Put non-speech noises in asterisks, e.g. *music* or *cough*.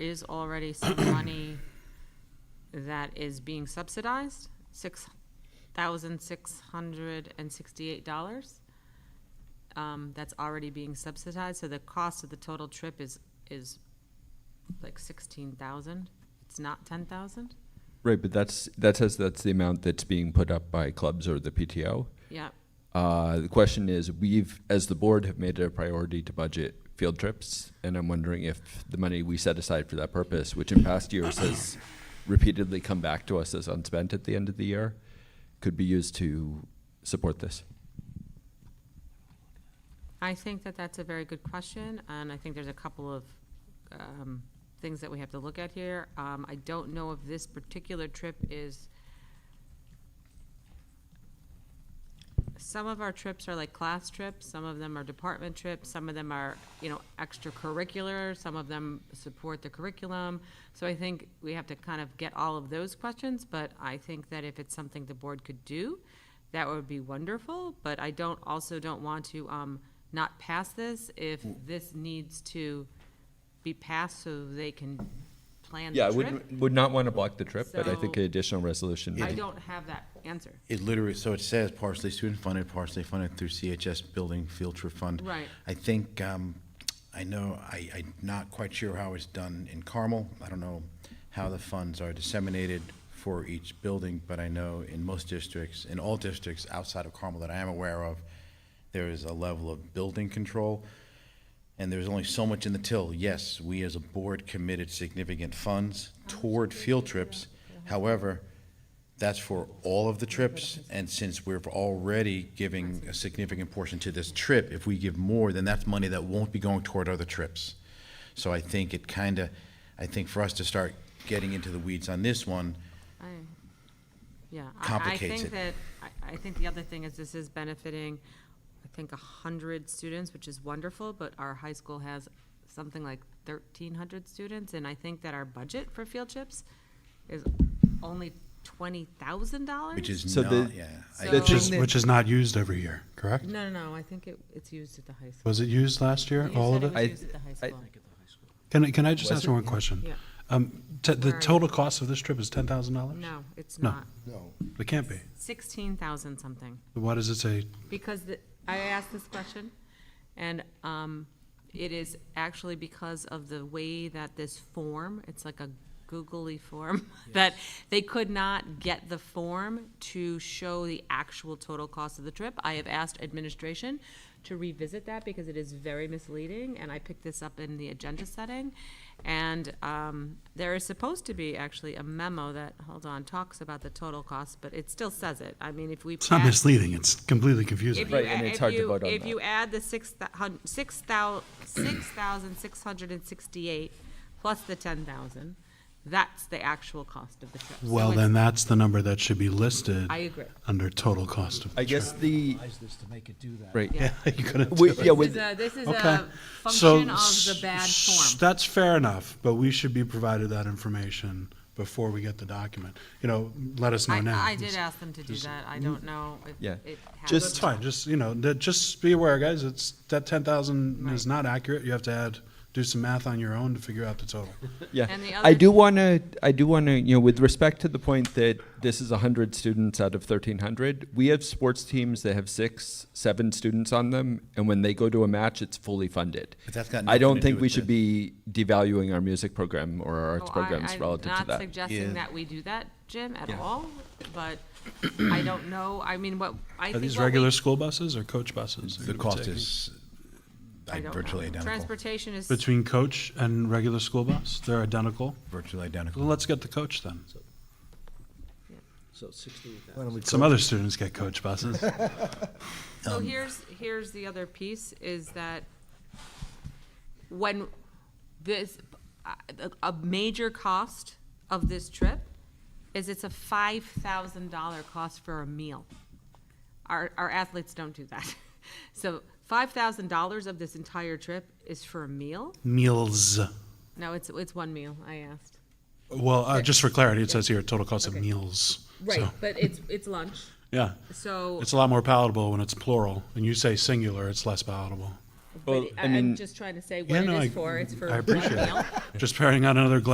is already some *coughs* money that is being subsidized, six thousand six hundred and sixty-eight dollars. Um, that's already being subsidized, so the cost of the total trip is, is like sixteen thousand. It's not ten thousand? Right, but that's, that says that's the amount that's being put up by clubs or the PTO. Yeah, Uh, the question is, we've, as the board, have made it a priority to budget field trips, and I'm wondering if the money we set aside for that purpose, which in past years has repeatedly come back to us as unspent at the end of the year, could be used to support this. I think that that's a very good question, and I think there's a couple of um, things that we have to look at here. Um, I don't know if this particular trip is. Some of our trips are like class trips, some of them are department trips, some of them are, you know, extracurricular, some of them support the curriculum. So I think we have to kind of get all of those questions, but I think that if it's something the board could do, that would be wonderful, but I don't, also don't want to, um, not pass this if Mm. this needs to be passed so they can plan Yeah, I the would, trip. would not want to block the trip, but I think So- an additional resolution. I would- don't have that answer. It literally, so it says partially student-funded, partially funded through CHS Building Field Trip Fund. Right. I think, um, I know, I, I'm not quite sure how it's done in Carmel. I don't know how the funds are disseminated for each building, but I know in most districts, in all districts outside of Carmel that I am aware of, there is a level of building control. And there's only so much in the till. Yes, we as a board committed significant funds toward field trips. However, that's for all of the trips, and since we're already giving a significant portion to this trip, if we give more, then that's money that won't be going toward other trips. So I think it kind of, I think for us to start getting into the weeds on this one, I, yeah, I, I Complicates think it. that, I, I think the other thing is this is benefiting, I think, a hundred students, which is wonderful, but our high school has something like thirteen hundred students, and I think that our budget for field trips is only twenty thousand dollars? which is So the- not, yeah. I- So- The Which thing is- that- Which is not used every year, correct? No, no, no, I think it, it's used at the high school. Was it used last year, You all said of was it? I- used at the high I- school. Can, I- can I just Was ask it? one question? Yeah. Um, t- the Where are total cost of this trip is ten thousand dollars? No, it's No. not. It can't be. Sixteen thousand something. Why does it say, because the, I asked this question, and um, it is actually because of the way that this form, it's like a googly form, *laughs* that they could not get the form to show the actual total cost of the trip. I have asked administration to revisit that because it is very misleading, and I picked this up in the agenda setting. And um, there is supposed to be actually a memo that, hold on, talks about the total cost, but it still says it. I mean, if we. it's not pass- misleading, it's completely if confusing. you, Right, and a- it's if hard to you- vote on If that. you add the six thou- hun- six thou- 6,668 plus the 10,000, that's the actual cost of the trip. So Well, it's- then that's the number that should be listed. I agree. Under total cost of I *laughs* the trip. guess the, advise this to make it do that. right, Yeah. You couldn't We- do it. yeah, This with, is a- This is Okay. a So function of the s- bad s- form. That's fair enough, but we should be provided that information before we get the document. You know, let us know now. I, I did It's- ask them to do that. I don't know if Mm. Yeah. it happened. Just- That's fine, just, you know, that- just be aware, guys, it's, that ten thousand is not accurate, you have to add, do some math on your own to figure out the total. *laughs* Yeah, And the I other- do want to. I do want to. You know, with respect to the point that this is hundred students out of thirteen hundred, we have sports teams that have six, seven students on them, and when they go to a match, it's fully funded. But that's got I nothing don't to do think we with should this. be devaluing our music program or our So arts Oh, I- programs I'm relative to Not that. suggesting Yeah. that we do that, Jim, at Yeah. all, *clears throat* but I don't know. I mean, what, I Are think these what we regular school buses or coach buses? that The we're cost taking? is I don't know. virtually identical, Transportation is, Between coach and regular school bus, they're identical, virtually well, identical. let's get the coach then. So sixteen thousand. Why don't we Some other students get coach buses. so here's, here's the other piece, is that when this, a- a major cost of this trip is it's a five thousand dollar cost for a meal. Our, our athletes don't do that. *laughs* So five thousand dollars of this entire trip is for a meal? Meals, No, it's, it's one meal, I asked. well, uh, just for clarity, it says here, total cost of meals. So, but it's, it's lunch, Yeah, so. it's a lot more palatable when it's plural, and you say singular, it's less palatable. Well, But I I- I'm mean- just trying to say what it no, I- is for, it's for one I appreciate it. meal. Just pouring out another glass